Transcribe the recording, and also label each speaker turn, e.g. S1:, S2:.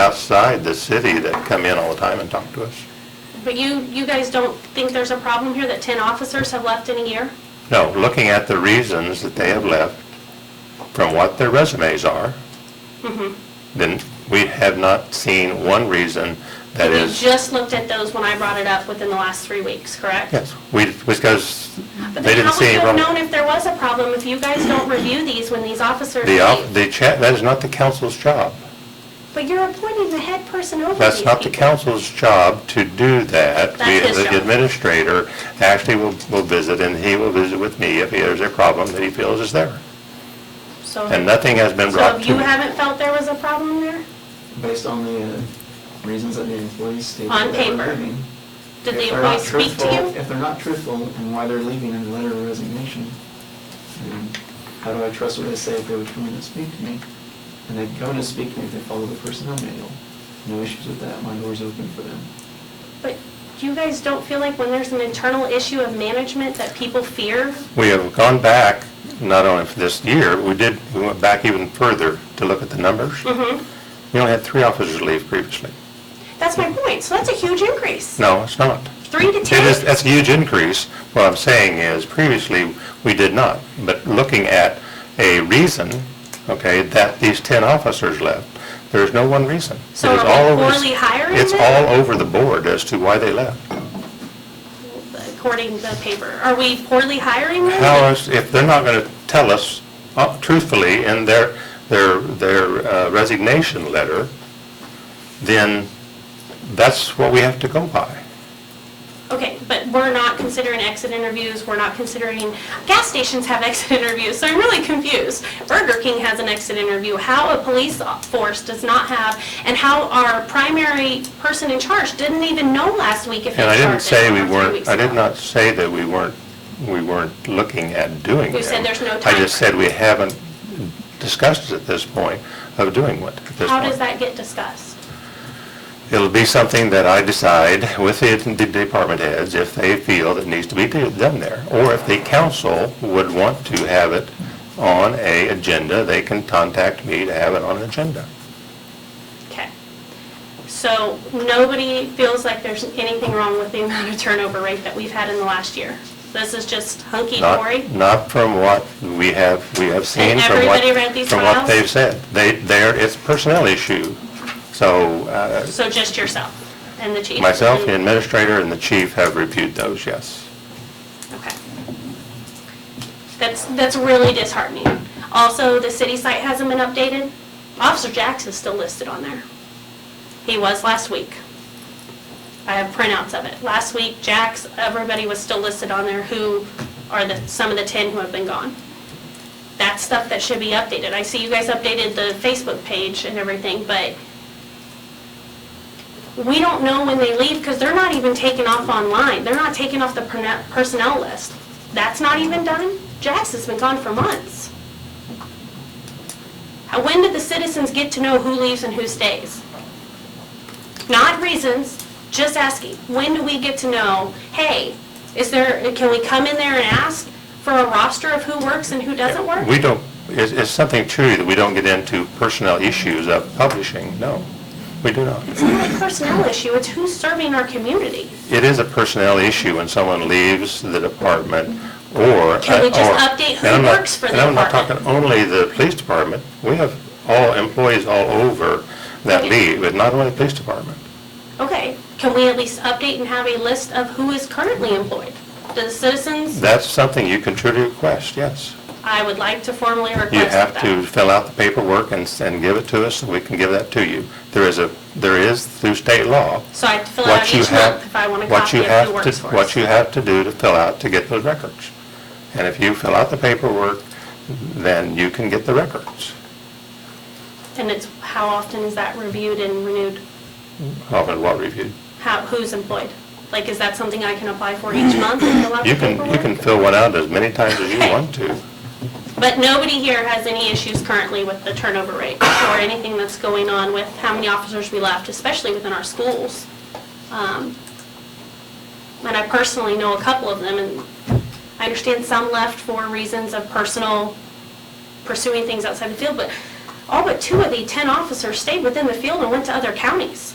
S1: outside the city that come in all the time and talk to us.
S2: But you, you guys don't think there's a problem here that 10 officers have left in a year?
S1: No, looking at the reasons that they have left from what their resumes are,
S2: Mm-hmm.
S1: then we have not seen one reason that
S2: You
S1: is,
S2: just looked at those when I brought it up within the last three weeks, correct?
S1: yes, we, because they
S2: But then
S1: didn't
S2: how
S1: see
S2: would
S1: any
S2: you have
S1: wrong.
S2: known if there was a problem if you guys don't review these when these officers
S1: The, op-
S2: leave?
S1: the cha, that is not the council's job.
S2: But you're appointing the head person over
S1: That's
S2: these
S1: not the
S2: people.
S1: council's job to do that.
S2: That's
S1: We-
S2: his
S1: The
S2: job.
S1: administrator actually will, will visit, and he will visit with me if there's a problem that he feels is there.
S2: So,
S1: And nothing has been
S2: so
S1: brought
S2: if
S1: to
S2: you
S1: me.
S2: haven't felt there was a problem there?
S3: based on the uh, reasons that the employees stated
S2: On
S3: that they were
S2: paper.
S3: leaving.
S2: Did
S3: If
S2: the
S3: they're not
S2: employees speak to
S3: truthful-
S2: you?
S3: If they're not truthful and why they're leaving in the letter of resignation, then how do I trust what they say if they would come in and speak to me? And they'd come in and speak to me if they follow the personnel manual. No issues with that, my door's open for them.
S2: But you guys don't feel like when there's an internal issue of management that people fear?
S1: We have gone back, not only for this year, we did, we went back even further to look at the numbers.
S2: Mm-hmm.
S1: We only had three officers leave previously.
S2: That's my point. So that's a huge increase.
S1: No, it's not.
S2: Three to
S1: It is,
S2: 10?
S1: that's a huge increase. What I'm saying is, previously, we did not. But looking at a reason, okay, that these 10 officers left, there's no one reason.
S2: So
S1: It is
S2: are we
S1: all over-
S2: poorly hiring
S1: It's
S2: then?
S1: all over the board as to why they left.
S2: according to the paper. Are we poorly hiring them?
S1: How is, if they're not going to tell us uh, truthfully in their, their, their uh, resignation letter, then that's what we have to go by.
S2: Okay, but we're not considering exit interviews, we're not considering, gas stations have exit interviews, so I'm really confused. Burger King has an exit interview, how a police force does not have, and how our primary person in charge didn't even know last week if he
S1: And I
S2: started.
S1: didn't say we
S2: or three
S1: weren't,
S2: weeks
S1: I did
S2: ago.
S1: not say that we weren't, we weren't looking at doing them.
S2: You said there's no
S1: I
S2: time.
S1: just said we haven't discussed at this point of doing what, at this
S2: How does
S1: point.
S2: that get discussed?
S1: It'll be something that I decide with the the department heads if they feel that needs to be do- done there. Or if the council would want to have it on a agenda, they can contact me to have it on an agenda.
S2: Okay. So nobody feels like there's anything wrong with the amount of turnover rate that we've had in the last year. This is just hunky-dory?
S1: Not, not from what we have, we have seen,
S2: And
S1: from what,
S2: everybody read these
S1: from what
S2: files?
S1: they've said. They, they're, it's a personnel issue. So uh,
S2: So just yourself and the chief? Mm-hmm.
S1: myself, the administrator, and the chief have reviewed those, yes.
S2: Okay. That's, that's really disheartening. Also, the city site hasn't been updated. Officer Jax is still listed on there. He was last week. I have printouts of it. Last week, Jax, everybody was still listed on there who are the, some of the 10 who have been gone. That's stuff that should be updated. I see you guys updated the Facebook page and everything, but we don't know when they leave because they're not even taken off online. They're not taken off the perna- personnel list. That's not even done. Jax has been gone for months. How- When did the citizens get to know who leaves and who stays? Not reasons, just asking. When do we get to know, hey, is there, can we come in there and ask for a roster of who works and who doesn't work?
S1: We don't, it's, it's something true that we don't get into personnel issues of publishing, no, we do not.
S2: It's not a personnel issue, it's who's serving our community.
S1: It is a personnel issue when someone leaves the department or. uh,
S2: Can we just
S1: or-
S2: update who
S1: and I'm not-
S2: works for the
S1: And I'm not
S2: department?
S1: talking only the police department, we have all employees all over that
S2: Okay.
S1: leave, but not only the police department.
S2: Okay, can we at least update and have a list of who is currently employed? The citizens,
S1: That's something you can truly request, yes.
S2: I would like to formally request
S1: You have
S2: that.
S1: to fill out the paperwork and, s- and give it to us, so we can give that to you. There is a, there is through state law,
S2: So I have to fill it out
S1: what you
S2: each
S1: have,
S2: month if I want a
S1: what
S2: copy
S1: you
S2: of who
S1: have
S2: works
S1: to,
S2: for
S1: what
S2: us.
S1: you have to do to fill out to get those records. And if you fill out the paperwork, then you can get the records.
S2: And it's, how often is that reviewed and renewed?
S1: Often what reviewed.
S2: How, who's employed? Like, is that something I can apply for each month and fill out the
S1: You can, you can
S2: paperwork?
S1: fill one out as many times as you want to.
S2: But nobody here has any issues currently with the turnover rate or anything that's going on with how many officers we left, especially within our schools. Um, And I personally know a couple of them, and I understand some left for reasons of personal pursuing things outside the field, but all but two of the 10 officers stayed within the field and went to other counties.